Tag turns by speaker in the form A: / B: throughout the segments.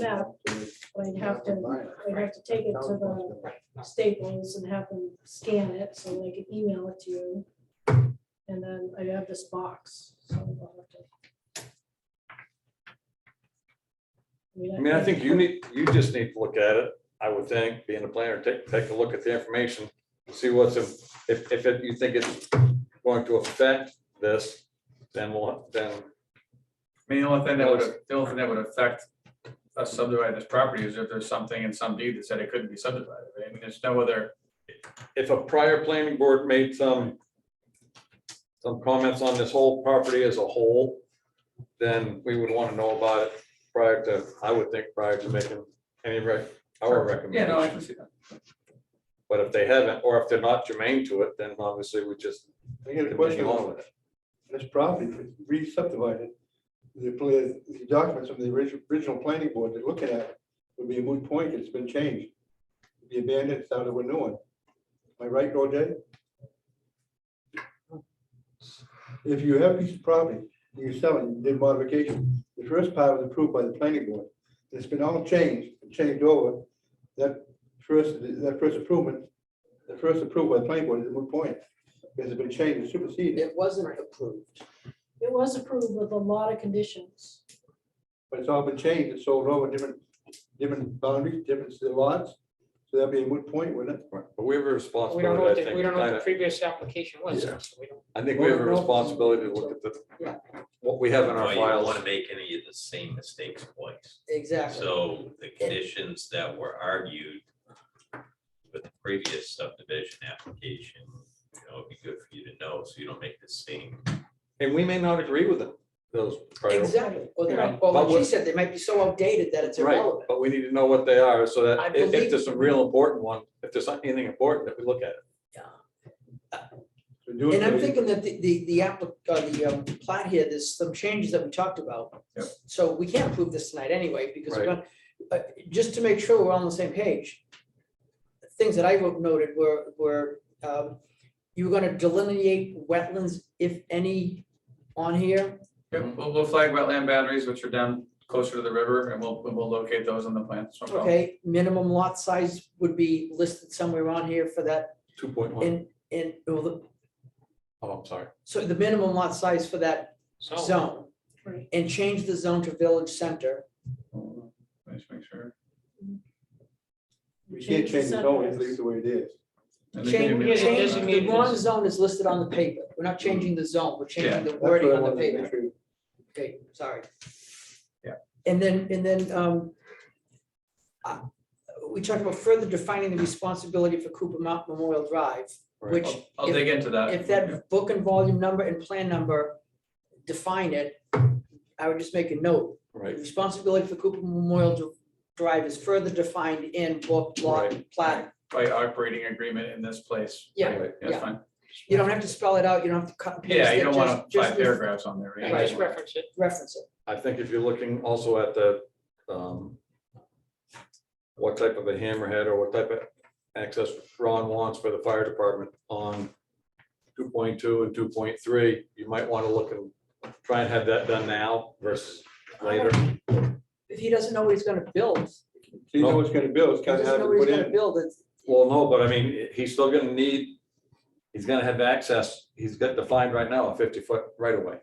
A: map, we'd have to, we'd have to take it to the Staples and have them scan it so they could email it to you. And then I have this box, so. I'll have to-
B: I mean, I think you need, you just need to look at it, I would think, being a planner, take, take a look at the information, see what's, in- if, if it- you think it's going to affect this, then we'll, then,
C: I mean, the only thing that would, the only thing that would affect us subdividing this property is if there's something in some deed that said it couldn't be subdivided. I mean, there's no other,
B: if a prior planning board made some some comments on this whole property as a whole, then we would want to know about it prior to, I would think, prior to making any rec, our
C: yeah, no, I
B: recommendation.
C: can see that.
B: But if they haven't, or if they're not germane to it, then obviously we just
D: I got a question
B: continue on
D: on
B: with it.
D: this property, it's re-subdivided. The, pla- the documents from the original, original planning board they're looking at would be a moot point, it's been changed. The abandoned, started with new one. Am I right, Roger? If you have a piece of property, you're selling, did modification, the first part was approved by the planning board. It's been all changed, and changed over, that first, that first improvement, the first approved by the planning board is a moot point. Because it's been changed, superseded.
E: It wasn't approved.
A: It was approved with a lot of conditions.
D: But it's all been changed, it's sold over different, different boundaries, different lots, so that'd be a moot point, wouldn't it?
B: But we
E: We don't
B: have a
E: know, what
B: responsibility, I
E: the-
B: think.
E: we don't know what the
B: kinda-
E: previous application was.
B: Yeah.
E: so we don't-
B: I think we have a responsibility to look at
E: Yeah.
B: the, what we have in our
F: Well, you don't want
B: files.
F: to make any of the same mistakes twice.
E: Exactly.
F: So the conditions that were argued with the previous subdivision application, you know, it'd be good for you to know, so you don't make the same.
B: And we may not agree with them, those. prior-
E: Exactly. Well, they
B: Yeah.
E: might- well,
B: But
E: what she
B: what-
E: said, they might be so outdated that it's
B: Right,
E: irrelevant.
B: but we need to know what they are, so
E: I
B: that if- if
E: believe-
B: there's some real important one, if there's anything important, that we look at it.
D: So do it
E: And I'm
D: for-
E: thinking that the, the, the applic, uh, the, um, plot here, there's some changes that we talked about.
C: Yep.
E: So we can't approve this tonight anyway, because we're
B: Right.
E: not- uh, just to make sure we're on the same page. Things that I wrote noted were, were, um, you were gonna delineate wetlands, if any, on here.
C: Yeah, We'll, we'll flag wetland boundaries, which are down closer to the river, and we'll, we'll locate those on the plan. That's no
D: Oh.
C: problem.
E: Okay, minimum lot size would be listed somewhere on here for that,
B: Two point one.
E: and, and, well, the-
B: Oh, I'm sorry.
E: so the minimum lot size for that zone.
A: Right.
E: And change the zone to village center.
C: Let me just make sure.
D: We can't change it, no, it's
A: setbacks.
D: leave the way it is.
C: And they can
E: Change,
C: give me a-
E: change,
C: Yeah,
E: the wrong zone is listed on the paper. We're not changing the zone, we're
C: Yeah,
E: changing the
D: That's what
E: wording
D: I
E: on the
D: wanted to
E: paper.
D: make sure.
E: Okay, sorry.
C: Yeah.
E: And then, and then, um, uh, we talked about further defining the responsibility for Cooper Mount Memorial Drive,
B: Right.
E: which
C: I'll- I'll dig into that.
E: if that book and volume number and plan number define it, I would just make a note. The
B: Right,
E: Responsibility for Cooper Memorial Dr- Drive is further defined in book, lot, plat.
C: By operating agreement in this place.
E: Yeah,
C: Yeah, That's
E: yeah.
C: fine.
E: You don't have to spell it out, you don't have to cut and paste.
C: Yeah, you
E: it,
C: don't
E: just-
C: want
E: just
C: five
E: re-
C: paragraphs on there.
E: Yeah,
C: right?
E: just
C: Right.
E: reference it. Reference it.
B: I think if you're looking also at the, um, what type of a hammerhead or what type of access Ron wants for the fire department on two point two and two point three, you might want to look and try and have that done now versus later.
E: If he doesn't know what he's gonna build, if
D: So you know what's gonna build, it's
E: he
D: kind of
E: doesn't
D: hard
E: know
D: to
E: what he's
D: put
E: gonna
D: in.
E: build, it's,
B: Well, no, but I mean, he's still gonna need, he's gonna have access, he's got defined right now a fifty foot right away.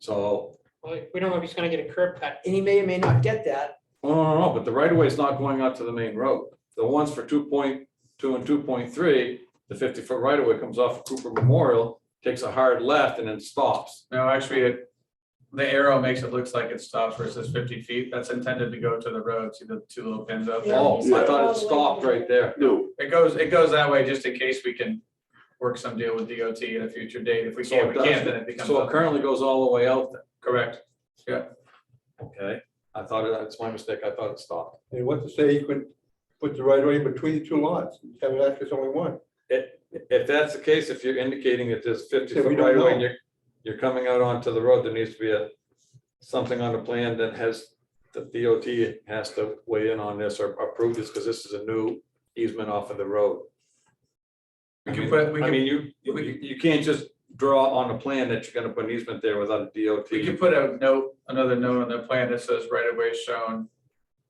B: So,
G: Well, we don't know if he's gonna get a curb cut.
E: and he may or may not get that.
B: no, no, no, but the right of way is not going out to the main road. The ones for two point two and two point three, the fifty foot right of way comes off of Cooper Memorial, takes a hard left and then stops.
C: No, actually, it, the arrow makes it looks like it stops where it says fifty feet. That's intended to go to the road, see the two little pins out there.
B: Oh, I thought it stopped right there.
D: No.
C: It goes, it goes that way just in case we can work some deal with DOT at a future date. If we
B: So
C: can't,
B: it
C: we can't, then it
B: does,
C: becomes.
B: so it currently goes all the way out there.
C: Correct.
B: Okay, I thought it, that's my mistake, I thought it stopped.
D: And what to say, you couldn't put the right way between the two lots, have it access only one.
B: If that's the case, if you're indicating that there's fifty
D: Yeah, we
B: foot
D: don't
B: right away and
D: know.
B: you're, you're coming out onto the road, there needs to be a. Something on the plan that has, the DOT has to weigh in on this or approve this, because this is a new easement off of the road.
C: We
B: I
C: can
B: mean,
C: put- we
B: I
C: can-
B: mean, you,
C: we
B: you, you can't just draw on a plan that you're gonna put an easement there without a
C: We could
B: DOT.
C: put a note, another note on the plan that says right of way shown